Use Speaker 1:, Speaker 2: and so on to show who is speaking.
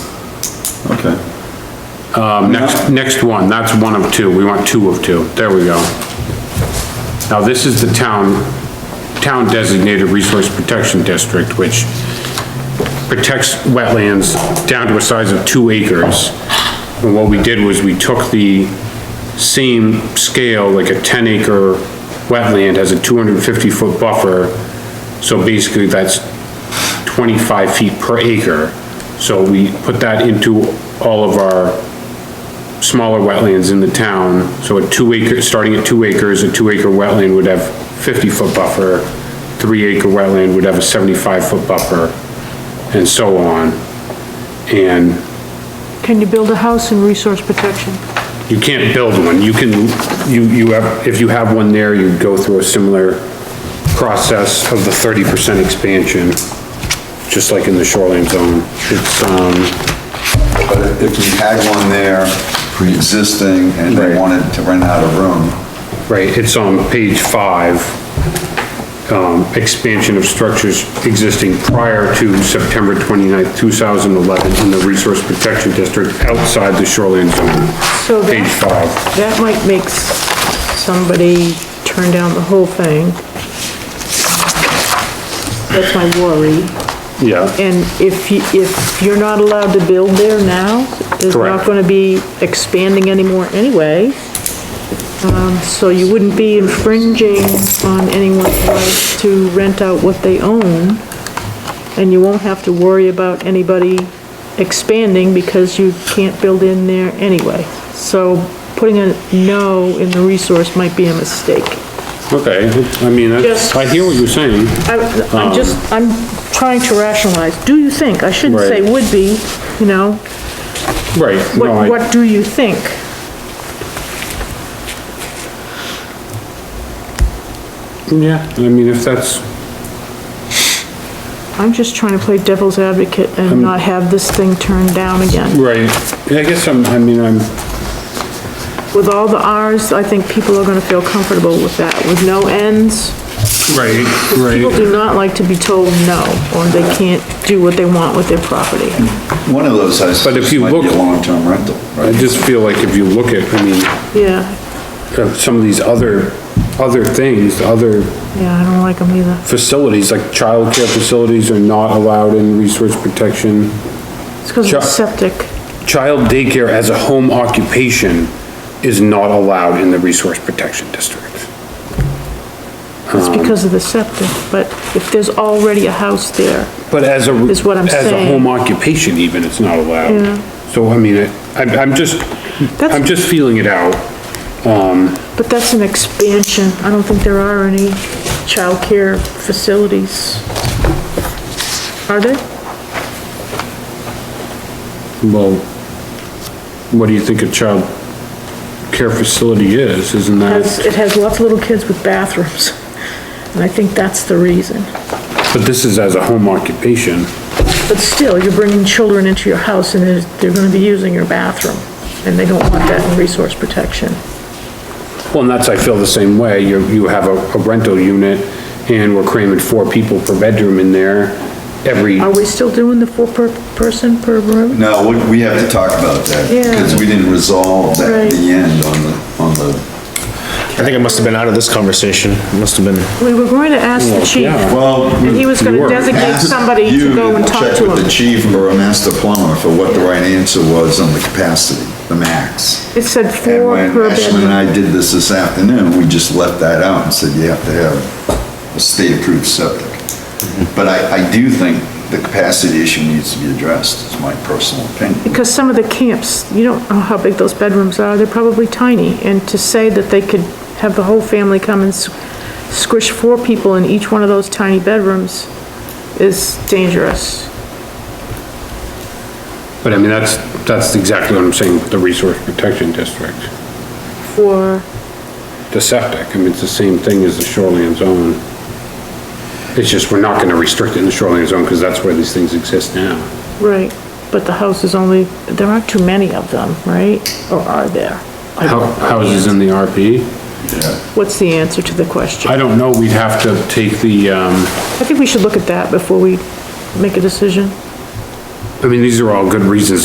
Speaker 1: Okay.
Speaker 2: Um, Next, next one, that's one of two, we want two of two, there we go. Now, this is the town, town designated resource protection district, which protects wetlands down to a size of two acres. And what we did was we took the same scale, like a ten acre wetland has a two hundred and fifty foot buffer, so basically that's twenty-five feet per acre. So we put that into all of our smaller wetlands in the town, so a two acre, starting at two acres, a two acre wetland would have fifty foot buffer, three acre wetland would have a seventy-five foot buffer, and so on. And
Speaker 3: Can you build a house in resource protection?
Speaker 2: you can't build one, you can, you, you have, if you have one there, you go through a similar process of the thirty percent expansion, just like in the shoreline zone. It's, um,
Speaker 1: But if you had one there, pre-existing, and they
Speaker 2: Right.
Speaker 1: wanted to rent out a room,
Speaker 2: right, it's on page five. um, expansion of structures existing prior to September 29th, 2011 in the Resource Protection District outside the shoreline zone.
Speaker 3: So
Speaker 2: Page
Speaker 3: that,
Speaker 2: five.
Speaker 3: that might make s- somebody turn down the whole thing. That's my worry.
Speaker 2: Yeah,
Speaker 3: And if you, if you're not allowed to build there now, there's
Speaker 2: Correct.
Speaker 3: not gonna be expanding anymore anyway. Um, so you wouldn't be infringing on anyone's right to rent out what they own. And you won't have to worry about anybody expanding because you can't build in there anyway. So putting a no in the resource might be a mistake.
Speaker 2: okay, I mean, that's- I hear what you're saying.
Speaker 3: I- I'm just, I'm trying to rationalize. Do you think? I shouldn't say
Speaker 2: Um. Right.
Speaker 3: would be, you know?
Speaker 2: Right. no, I-
Speaker 3: What, what do you think?
Speaker 2: Yeah, I mean, if that's,
Speaker 3: I'm just trying to play devil's advocate and not have this thing turned down again.
Speaker 2: right, I guess I'm, I mean, I'm,
Speaker 3: With all the Rs, I think people are gonna feel comfortable with that, with no ends.
Speaker 2: right,
Speaker 3: People
Speaker 2: right.
Speaker 3: do not like to be told no, or they can't do what they want with their property.
Speaker 2: Hmm.
Speaker 1: one of those houses
Speaker 2: But
Speaker 1: might
Speaker 2: if
Speaker 1: be
Speaker 2: you
Speaker 1: a
Speaker 2: look-
Speaker 1: long-term rental,
Speaker 2: I
Speaker 1: right?
Speaker 2: just feel like if you look at, I mean,
Speaker 3: Yeah,
Speaker 2: uh, some of these other, other things, other
Speaker 3: yeah, I don't like them either.
Speaker 2: facilities, like childcare facilities are not allowed in resource protection.
Speaker 3: It's because
Speaker 2: Sure.
Speaker 3: of the septic.
Speaker 2: Child daycare as a home occupation is not allowed in the resource protection district.
Speaker 3: It's
Speaker 2: Um.
Speaker 3: because of the septic, but if there's already a house there,
Speaker 2: But as a.
Speaker 3: Is what I'm
Speaker 2: As a
Speaker 3: saying.
Speaker 2: home occupation even, it's not allowed.
Speaker 3: Yeah.
Speaker 2: So I mean, I- I'm, I'm just,
Speaker 3: That's-
Speaker 2: I'm just feeling it out.
Speaker 3: But that's an expansion. I don't think there are any childcare facilities. Are there?
Speaker 2: Well, what do you think a child care facility is? Isn't
Speaker 3: Has-
Speaker 2: that?
Speaker 3: It has lots of little kids with bathrooms, and I think that's the reason.
Speaker 2: But this is as a home occupation.
Speaker 3: But still, you're bringing children into your house and they're, they're gonna be using your bathroom, and they don't want that in resource protection.
Speaker 2: Well, and that's, I feel the same way. You, you have a a rental unit and we're cramming four people per bedroom in there every,
Speaker 3: Are we still doing the four per person per room?
Speaker 1: No, we- we have to talk about that,
Speaker 3: Yeah.
Speaker 1: because we didn't resolve that at the
Speaker 3: Right.
Speaker 1: end on the, on the,
Speaker 4: I think I must have been out of this conversation. It Must have been.
Speaker 3: We were going to ask the chief,
Speaker 2: yeah.
Speaker 1: well.
Speaker 3: and he was gonna
Speaker 2: were.
Speaker 3: designate somebody to go and talk
Speaker 1: Check
Speaker 3: to
Speaker 1: with the
Speaker 3: him.
Speaker 1: chief or a master plumber for what the right answer was on the capacity, the max.
Speaker 3: It said
Speaker 1: And
Speaker 3: four
Speaker 1: when
Speaker 3: per
Speaker 1: Ashley and
Speaker 3: bedroom.
Speaker 1: I did this this afternoon, we just left that out and said you have to have a state-approved septic. But I, I do think the capacity issue needs to be addressed, is my personal opinion.
Speaker 3: Because some of the camps, you don't know how big those bedrooms are, they're probably tiny, and to say that they could have the whole family come and s- squish four people in each one of those tiny bedrooms is dangerous.
Speaker 2: but I mean, that's, that's exactly what I'm saying with the resource protection district.
Speaker 3: For,
Speaker 2: The septic, I mean, it's the same thing as the shoreline zone. It's just, we're not gonna restrict it in the shoreline zone because that's where these things exist now.
Speaker 3: right, but the house is only, there aren't too many of them, right? Or are there? I don't
Speaker 2: Hou-
Speaker 3: know.
Speaker 2: Houses in the RP?
Speaker 3: What's the answer to the question?
Speaker 2: I don't know, we'd have to take the, um,
Speaker 3: I think we should look at that before we make a decision.
Speaker 2: I mean, these are all good reasons